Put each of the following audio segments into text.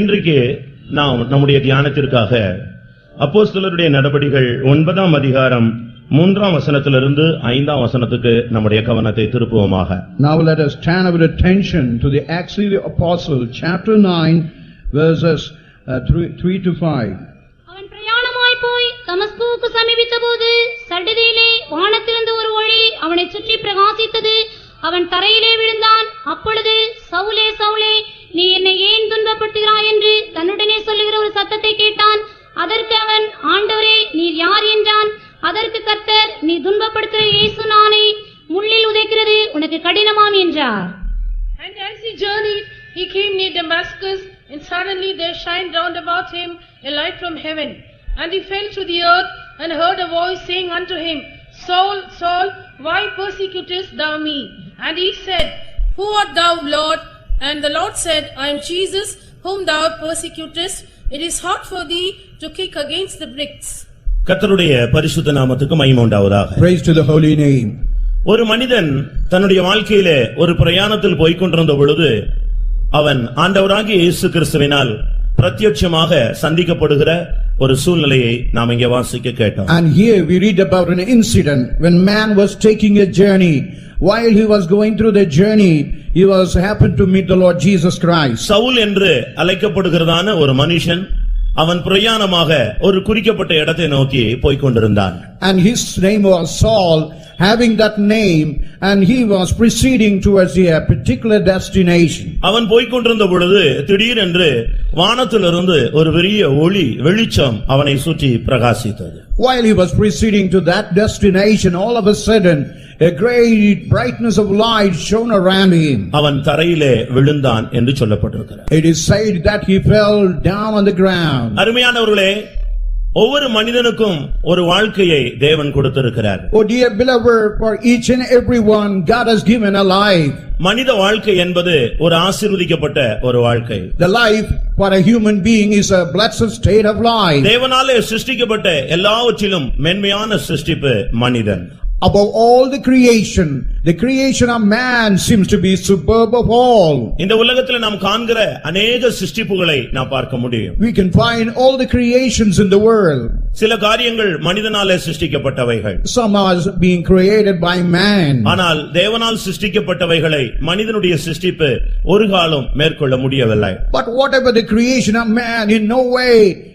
இன்றைக்கு நாம் நம்முடைய தியானத்திற்காக அப்போஸ்தலருடைய நடபடிகள் ஒன்பதாம் அதிகாரம் மூன்றாம் வசனத்திலிருந்து ஐந்தாம் வசனத்துக்கு நம்முடைய கவனத்தை திருப்புவோமாக Now let us turn our attention to the Acts of the Apostle, chapter 9, verses uh, 3 three to 5. அவன் பிரயாணமாய் போய் தமஸ்கூவுக்கு சமீபித்தபோது சடுதியிலே வானத்திலிருந்து ஒரு ஒளி அவனை சுற்றி பிரகாசித்தது அவன் தரையிலே விழுந்தான் அப்பொழுது சவுலே சவுலே நீ என்னை ஏன் துன்பப்படுத்துகிறாய் என்று தன்னுடனே சொல்லுகிற ஒரு சத்தத்தை கேட்டான் அதற்கு அவன் ஆண்டவரே நீர் யார் என்றான் அதற்கு கர்த்தர் நீ துன்பப்படுத்துகிற இயேசு நானே முள்ளில் உதைக்கிறது உனக்கு கடினமாம் என்றார் And as he journeyed, he came near Damascus, and suddenly there shined round about him a light from heaven. And he fell to the earth, and heard a voice saying unto him, Saul, Saul, why persecutest thou me? And he said, Who art thou, Lord? And the Lord said, I am Jesus, whom thou persecutest. It is hard for thee to kick against the bricks. கர்த்தருடைய பரிசுத்த நாமத்துக்கு மகிமை உண்டாவதாக Praise to the holy name. ஒரு மனிதன் தன்னுடைய வாழ்க்கையிலே ஒரு பிரயாணத்தில் போய்க் கொண்டிருந்த பொழுது அவன் ஆண்டவராகிய இயேசு கிறிஸ்துவினால் பிரத்யட்சமாக சந்திக்கப்படுகிற ஒரு சூழ்நிலையை நாம் இங்கே வாசிக்க கேட்டோம் And here we read about an incident when man was taking a journey. While he was going through the journey, he was happened to meet the Lord Jesus Christ. Saul என்று அழைக்கப்படுகிறதான ஒரு மனுஷன் அவன் பிரயாணமாக ஒரு குறிக்கப்பட்ட இடத்தை நோக்கி போய்க் கொண்டிருந்தான் And his name was Saul, having that name, and he was proceeding towards a particular destination. அவன் போய்க் கொண்டிருந்த பொழுது திடீரென்று வானத்திலிருந்து ஒரு பெரிய ஒளி வெளிச்சம் அவனை சுற்றி பிரகாசித்தது While he was proceeding to that destination, all of a sudden, a great brightness of light shone around him. அவன் தரையிலே விழுந்தான் என்று சொல்லப்பட்டிருக்கிறார் It is said that he fell down on the ground. அருமையானவர்களே ஒவ்வொரு மனிதனுக்கும் ஒரு வாழ்க்கையை தேவன் கொடுத்திருக்கிறார் Oh dear beloved, for each and every one, God has given a life. மனித வாழ்க்கை என்பது ஒரு ஆசீர்வதிக்கப்பட்ட ஒரு வாழ்க்கை The life for a human being is a blessed state of life. தேவனாலே சிருஷ்டிக்கப்பட்ட எல்லாவற்றிலும் மென்மையான சிருஷ்டிப்பு மனிதன் Above all the creation, the creation of man seems to be superb of all. இந்த உலகத்தில் நாம் காண்கிற அநேக சிருஷ்டிப்புகளை நாம் பார்க்க முடியும் We can find all the creations in the world. சில காரியங்கள் மனிதனாலே சிருஷ்டிக்கப்பட்டவைகள் Some are being created by man. ஆனால் தேவனால் சிருஷ்டிக்கப்பட்டவைகளை மனிதனுடைய சிருஷ்டிப்பு ஒரு காலம் மேற்கொள்ள முடியவில்லை But whatever the creation of man, in no way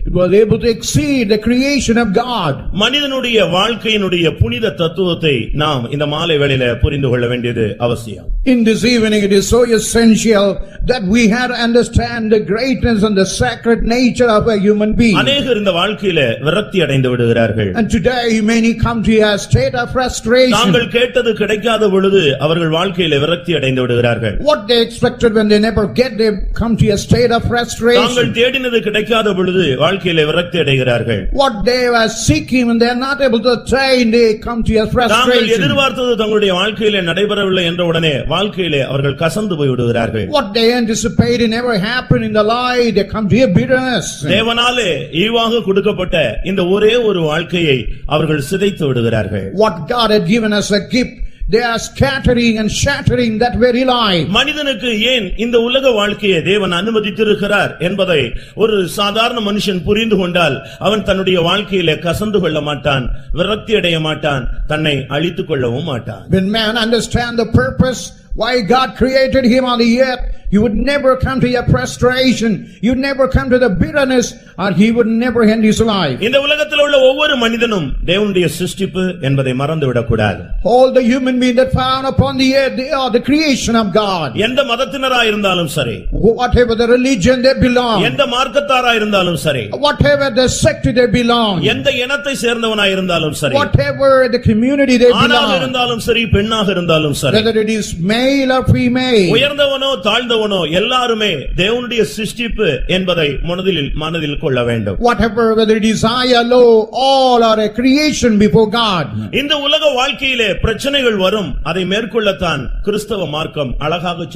it was able to exceed the creation of God. மனிதனுடைய வாழ்க்கையினுடைய புனித தத்துவத்தை நாம் இந்த மாலை வேளையில புரிந்து கொள்ள வேண்டியது அவசியம் In this evening, it is so essential that we had to understand the greatness and the sacred nature of a human being. அநேகர் இந்த வாழ்க்கையில விரக்தி அடைந்து விடுகிறார்கள் And today, many come to a state of frustration. தாங்கள் கேட்டது கிடைக்காத பொழுது அவர்கள் வாழ்க்கையில விரக்தி அடைந்து விடுகிறார்கள் What they expected when they never get, they come to a state of தாங்கள் frustration. தேடினது கிடைக்காத பொழுது வாழ்க்கையில விரக்தி அடைகிறார்கள் What they were seeking and they are not able to attain, they come to a தாங்கள் frustration. எதிர்பார்த்தது தங்களுடைய வாழ்க்கையிலே நடைபெறவில்லை என்ற உடனே வாழ்க்கையிலே அவர்கள் கசந்து போய் விடுகிறார்கள் What they anticipated never happened in the life, they come to a bitterness. தேவனாலே ஈவாக கொடுக்கப்பட்ட இந்த ஒரே ஒரு வாழ்க்கையை அவர்கள் சிதைத்து விடுகிறார்கள் what God had given us a gift, they are scattering and shattering that very life. மனிதனுக்கு ஏன் இந்த உலக வாழ்க்கையை தேவன் அனுமதித்திருக்கிறார் என்பதை ஒரு சாதாரண மனுஷன் புரிந்து கொண்டால் அவன் தன்னுடைய வாழ்க்கையிலே கசந்து கொள்ள மாட்டான் விரக்தி அடைய மாட்டான் தன்னை அழித்துக் கொள்ளவும் மாட்டான் When man understand the purpose, why God created him on the earth, he would never come to your frustration, you'd never come to the bitterness, and he would never end his life. இந்த உலகத்தில் உள்ள ஒவ்வொரு மனிதனும் தேவனுடைய சிருஷ்டிப்பு என்பதை மறந்துவிடக்கூடாது All the human beings that found upon the earth, they are the creation of God. எந்த மதத்தினராய் இருந்தாலும் சரி Whatever the religion they belong, எந்த மார்க்கத்தாராய் இருந்தாலும் சரி whatever the sect they belong, எந்த இனத்தை சேர்ந்தவனாய் இருந்தாலும் சரி whatever the community they ஆணாக belong, இருந்தாலும் சரி பெண்ணாக இருந்தாலும் சரி whether it is male or female, உயர்ந்தவனோ தாழ்ந்தவனோ எல்லாருமே தேவனுடைய சிருஷ்டிப்பு என்பதை மனதில் மனதில் கொள்ள வேண்டும் whatever, whether it is high or low, all are a creation before God. இந்த உலக வாழ்க்கையிலே பிரச்சனைகள் வரும் அதை மேற்கொள்ளத்தான் கிறிஸ்தவ மார்க்கம் அழகாக